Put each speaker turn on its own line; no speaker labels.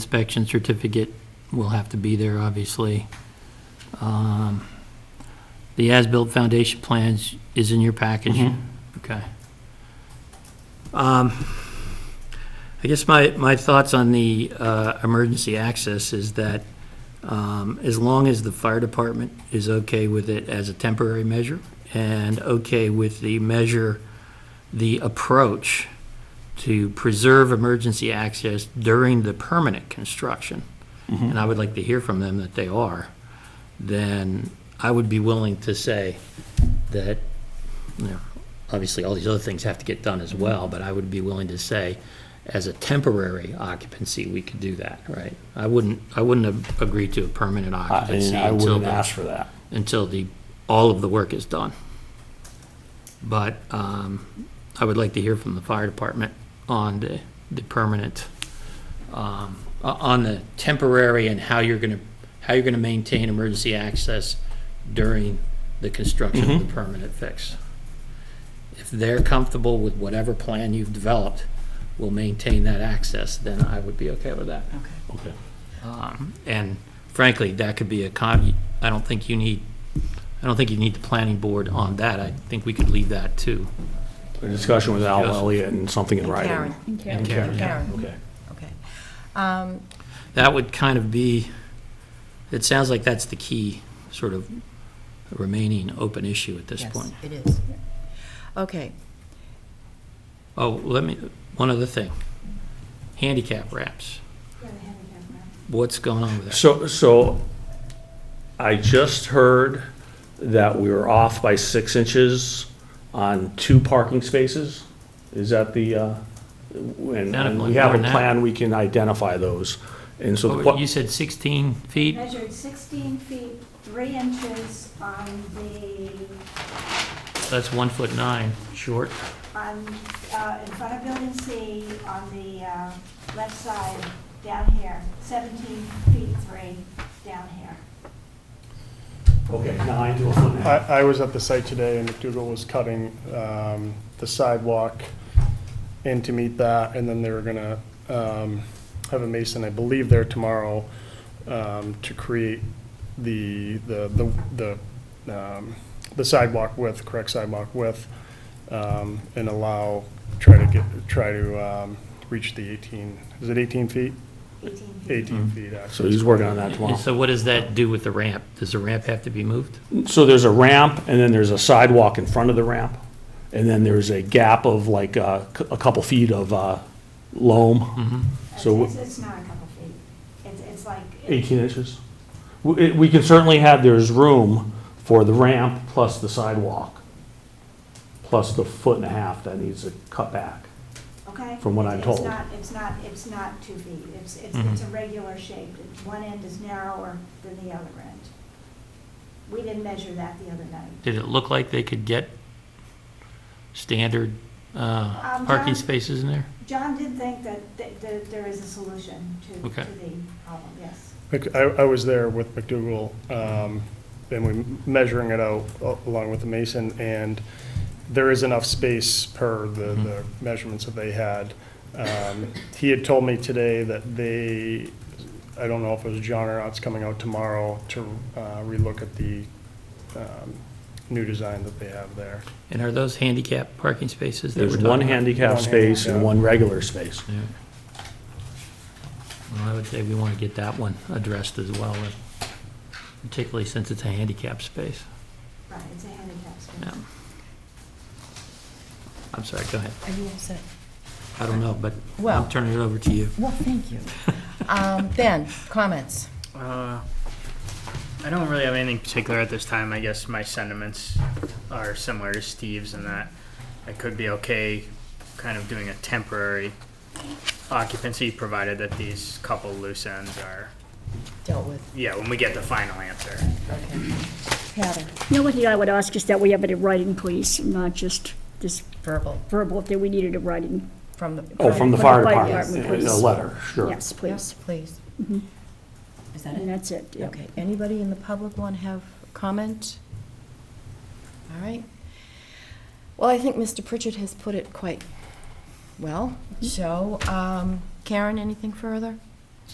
inspection certificate will have to be there, obviously. Um, The as-built foundation plans is in your package?
Mhm.
Okay. Um, I guess my, my thoughts on the uh, emergency access is that um, as long as the fire department is okay with it as a temporary measure and okay with the measure, the approach to preserve emergency access during the permanent construction,
Mm-hmm.
and I would like to hear from them that they are, then I would be willing to say that, you know, obviously, all these other things have to get done as well, but I would be willing to say, as a temporary occupancy, we could do that, right? I wouldn't, I wouldn't have agreed to a permanent
I,
occupancy
and I
until
wouldn't
the
ask for that.
until the, all of the work is done. But um, I would like to hear from the fire department on the, the permanent, um, o- on the temporary and how you're going to, how you're going to maintain emergency access during the construction of the permanent fix. If they're comfortable with whatever plan you've developed will maintain that access, then I would be okay with that.
Okay.
Okay.
Um, And frankly, that could be a con, I don't think you need, I don't think you need the planning board on that. I think we could leave that too.
A discussion with Al
Yes.
Elliott and something in writing.
Karen.
And Karen.
Karen,
Okay.
okay. Um,
That would kind of be, it sounds like that's the key sort of remaining open issue at this
yes,
point.
It is. Okay,
Oh, let me, one other thing. Handicap wraps. What's going on with that?
So, so I just heard that we were off by six inches on two parking spaces. Is that the, uh, and
Not a
and
plan,
we have
more
a
than that.
plan, we can identify those. And so the
Oh, You
que-
said 16 feet?
Measured 16 feet, 3 inches on the,
That's one foot nine, short.
on, uh, in front of building C, on the uh, left side, down here, 17 feet 3 down here.
okay, nine to a foot and a half.
I, I was at the site today and McDougal was cutting um, the sidewalk in to meet that, and then they were gonna um, have a mason, I believe, there tomorrow um, to create the, the, the, the um, the sidewalk width, correct sidewalk width, um, and allow, try to get, try to um, reach the 18, is it 18 feet?
18 feet.
18 feet, actually.
So he's working on that tomorrow.
And so what does that do with the ramp? Does the ramp have to be moved?
So there's a ramp, and then there's a sidewalk in front of the ramp, and then there's a gap of like uh, c- a couple feet of uh, loam.
Mm-hmm.
So
It's- It's not a couple feet. It's, it's like.
18 inches. We it- we can certainly have, there's room for the ramp plus the sidewalk, plus the foot and a half that needs to cut back.
Okay?
From what I'm
It's
told.
not- It's not, it's not 2 feet. It's, it's, it's a regular shape. It's- One end is narrower than the other end. We didn't measure that the other night.
Did it look like they could get standard uh,
Um,
parking
John?
spaces in there?
John did think that, th th there is a solution to,
Okay.
to the problem, yes.
Mc- I, I was there with McDougal, um, and we measuring it out a- along with the mason, and there is enough space per the, the measurements that they had. Um, He had told me today that they, I don't know if it was John or not, it's coming out tomorrow to, uh, relook at the, um, new design that they have there.
And are those handicap parking spaces? that
There's
we're talking
one
about?
handicap
One
space and
handicap.
one regular space.
Yeah. Well, I would say we want to get that one addressed as well, and particularly since it's a handicap space.
Right, it's a handicap
Yeah.
space.
I'm sorry, go ahead.
are you all set?
I don't know, but
Well-
I'm turning it over to you.
Well, thank you. Um, Ben, comments?
Uh, I don't really have anything particular at this time. I guess my sentiments are similar to Steve's in that I could be okay kind of doing a temporary occupancy provided that these couple loose ends are,
Dealt with,
yeah, when we get the final answer.
okay. Heather,
The only thing I would ask is that we have it in writing, please, not just this
verbal,
verbal, if we needed a writing.
from the.
Oh, from the
From
fire
the fire
department,
department,
a
please.
letter, sure.
Yes, please. Mm-hmm.
Yes, please. Is that
And
it?
that's it, yeah.
Okay, anybody in the public want to have comment? All right. Well, I think Mr. Pritchard Mm-hmm. has put it quite well, so, um, Karen, anything further?